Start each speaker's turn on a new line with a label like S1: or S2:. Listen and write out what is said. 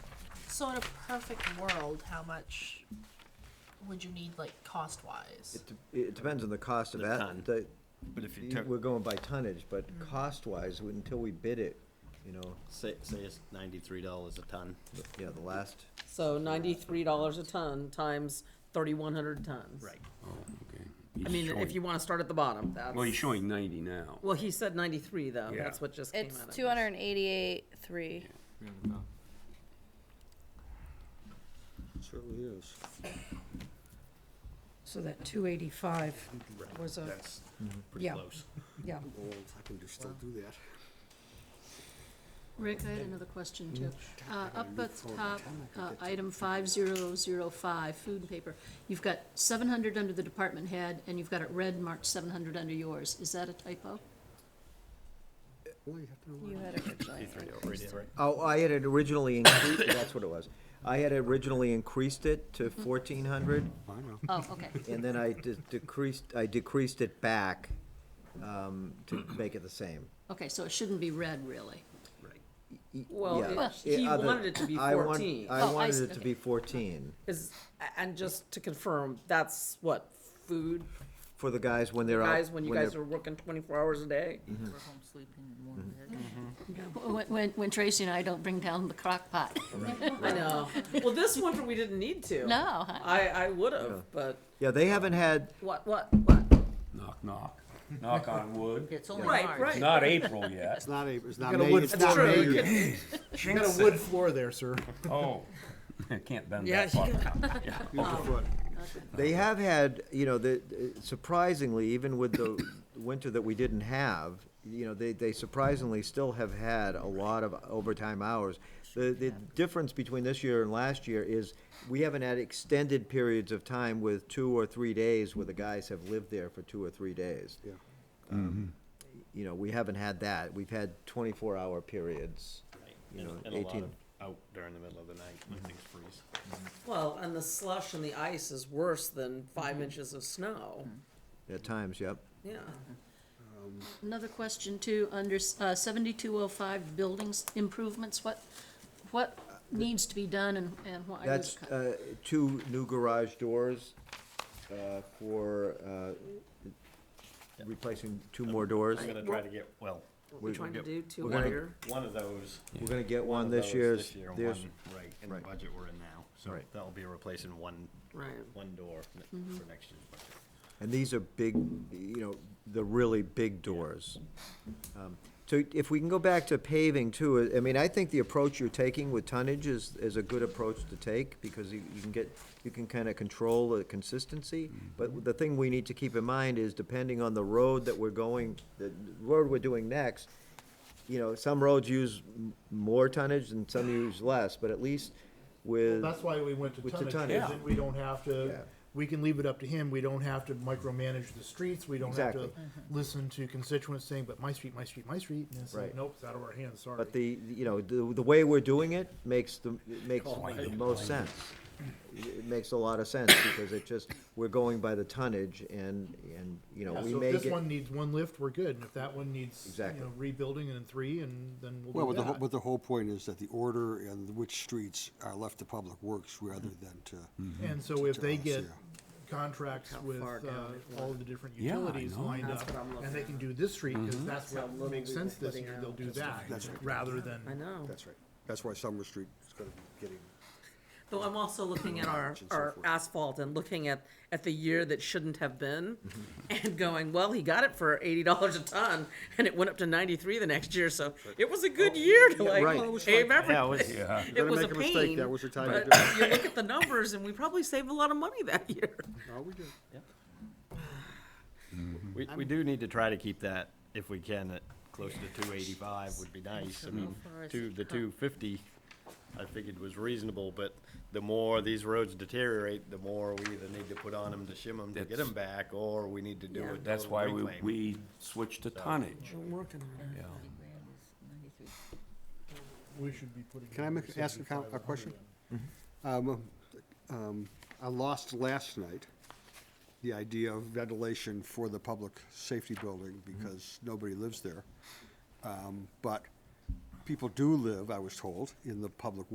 S1: So in a perfect world, how much would you need, like, cost-wise?
S2: It, de- it depends on the cost of
S3: The
S2: that,
S3: ton.
S2: the,
S3: But if you
S2: you-
S3: took,
S2: we're going by tonnage, but
S4: Mm.
S2: cost-wise, until we bid it, you know,
S3: say, say it's ninety-three dollars a ton,
S2: the- yeah, the last,
S4: So ninety-three dollars a ton times thirty-one hundred tons.
S3: right,
S5: Oh, okay.
S4: I
S5: He's
S4: mean, if
S5: showing-
S4: you wanna start at the bottom, that's.
S5: Well, he's showing ninety now.
S4: Well, he said ninety-three though,
S5: Yeah.
S4: that's what just came out
S6: It's
S4: of.
S6: two hundred and eighty-eight, three.
S7: Certainly is.
S8: So that two eighty-five was a,
S3: that's pretty
S8: yeah,
S3: close.
S8: yeah.
S7: Old, I can just still do that.
S9: Rick, I had another question too.
S7: Mm.
S9: Uh, Up at the top, uh, item 5005, food and paper, you've got 700 under the department head, and you've got it red marked 700 under yours. Is that a typo?
S7: Well, you have to know
S6: You had originally.
S2: oh, I had it originally increased, that's what it was. I had originally increased it to
S4: Mm-hmm.
S2: fourteen hundred,
S7: where- I know.
S9: Oh, okay.
S2: and then I de- decreased, I decreased it back, um, to make it the same.
S9: Okay, so it shouldn't be red, really.
S2: Y-
S4: Well,
S2: yeah.
S4: it-
S2: Yeah,
S4: he
S2: other-
S4: wanted it to be
S2: I want-
S4: 14.
S2: I
S9: Oh, I
S2: wanted
S9: see,
S2: it to
S9: okay.
S2: be fourteen,
S4: Is, and just to confirm, that's what, food,
S2: for the guys when
S5: Uh,
S2: they're out.
S4: guys, when you guys
S2: they're-
S4: are working twenty-four hours a day?
S5: Mm-hmm.
S10: We're home sleeping in one bed.
S9: When- When when Tracy and I don't bring down the crock pot.
S4: I know. Well, this winter we didn't need to.
S9: No.
S4: I, I would've, but
S2: Yeah, they haven't had,
S4: what, what, what?
S5: Knock, knock. Knock on wood.
S10: It's only
S4: Right,
S10: March.
S4: right.
S5: It's not April yet.
S7: It's not a, it's not
S3: got a
S7: May,
S3: wood
S7: it's
S3: floor.
S7: not
S4: That's
S7: May
S4: true.
S7: yet.
S5: You got a wood floor there, sir. Oh, can't bend
S4: Yeah,
S5: that far.
S4: you
S7: Use your foot.
S2: They have had, you know, the, surprisingly, even with the winter that we didn't have, you know, they, they surprisingly still have had a lot of overtime hours. The, the difference between this year and last year is we haven't had extended periods of time with two or three days where the guys have lived there for two or three days.
S7: Yeah.
S2: Um, You know, we haven't had that. We've had twenty-four hour periods.
S3: Right.
S2: You
S3: And
S2: know,
S3: and a lot
S2: 18.
S3: of out during the middle of the night, when things freeze.
S4: Well, and the slush and the ice is worse than
S3: Mm-hmm.
S4: five inches of snow,
S2: At times, yep.
S4: yeah.
S9: Another question too, under uh, 7205, buildings improvements, what, what needs to be done and and why? are you
S2: Uh, That's,
S9: cut-
S2: uh, two new garage doors, uh, for, uh, replacing two more doors.
S3: I'm gonna try to get, well,
S4: We're trying to
S2: Yep.
S4: do two
S2: We're gonna-
S4: layer.
S3: one of those.
S2: We're gonna get
S3: one
S2: one
S3: of
S2: this
S3: those
S2: year's,
S3: This year, and
S2: there's,
S3: one, right, in the
S2: right.
S3: budget we're in now, so
S2: Right.
S3: that'll be replacing one,
S4: Right.
S3: one door n- for next year's budget.
S2: and these are big, you know, the really big doors. Um, So if we can go back to paving too, I mean, I think the approach you're taking with tonnage is, is a good approach to take, because you, you can get, you can kinda control the consistency. But the thing we need to keep in mind is depending on the road that we're going, the road we're doing next, you know, some roads use m- more tonnage and some use less, but at least with.
S11: That's why we went to
S2: With the
S11: tonnage,
S2: tonnage.
S11: because then we don't have
S2: Yeah.
S11: to, we can leave it up to him, we don't have to micromanage the streets, we don't have
S2: Exactly.
S11: to
S4: Mm-hmm.
S11: listen to constituents saying, but my street, my street, my street, and it's
S2: Right.
S11: like, nope, it's out of our hands, sorry.
S2: But the, you know, the, the way we're doing it makes the, it makes the
S5: Blanket,
S2: most sense. It makes a lot of sense, because it just, we're going by the tonnage, and, and, you know,
S11: Yeah,
S2: we
S11: So
S2: may
S11: if this
S2: get,
S11: one needs one lift, we're good, and if that one needs, you
S2: Exactly.
S11: know, rebuilding and then three, and then
S7: Well,
S11: we'll
S7: but
S11: do
S7: the, whole-
S11: that.
S7: but the whole point is that the order and which streets are left to public works rather than to.
S11: And so if they
S7: To us,
S11: get
S7: yeah.
S11: contracts with,
S4: Mm-hmm. far down
S11: uh, all of the different
S5: Yeah, I
S11: utilities
S5: know.
S11: lined
S4: That's
S11: up,
S4: what I'm looking
S11: and they
S4: at.
S11: can do this street, because that's
S4: How
S11: what
S4: little
S11: makes
S4: we were
S11: sense this
S4: putting
S11: year, they'll
S4: out.
S11: do that,
S7: Mm-hmm. That's right.
S11: rather than.
S4: I know.
S7: That's right. That's why Summer Street is gonna be getting,
S4: Though I'm also looking at our,
S7: and so
S4: our
S7: forth.
S4: asphalt and looking at, at the year that shouldn't have been and going, well, he got it for eighty dollars a ton and it went up to ninety-three the next year, so it was a good year to
S2: right.
S4: like save
S3: Yeah, it was-
S4: everything.
S5: Yeah.
S4: It
S7: gonna
S4: was a
S7: make a mistake,
S4: pain,
S7: that was your time to
S4: but
S7: do it.
S4: you look at the numbers and we probably saved a lot of money that year.
S7: oh, we did.
S3: We, we do need to try to keep that, if we can, at closer to two eighty-five would be nice. I mean,
S10: far is
S3: two,
S10: it
S3: the two fifty, I figured was reasonable, but the more these roads deteriorate, the more we either need to put on them to shim them to get them back, or we need to do a total reclaim.
S5: That's why we, we switched to tonnage.
S4: I'm working on it.
S5: Yeah.
S10: Grand is 93.
S11: We should be putting.
S7: Can I make, ask a, com- a question? Um, um, I lost last night the idea of ventilation for the public safety building because nobody lives there. Um, but people do live, I was told, in the public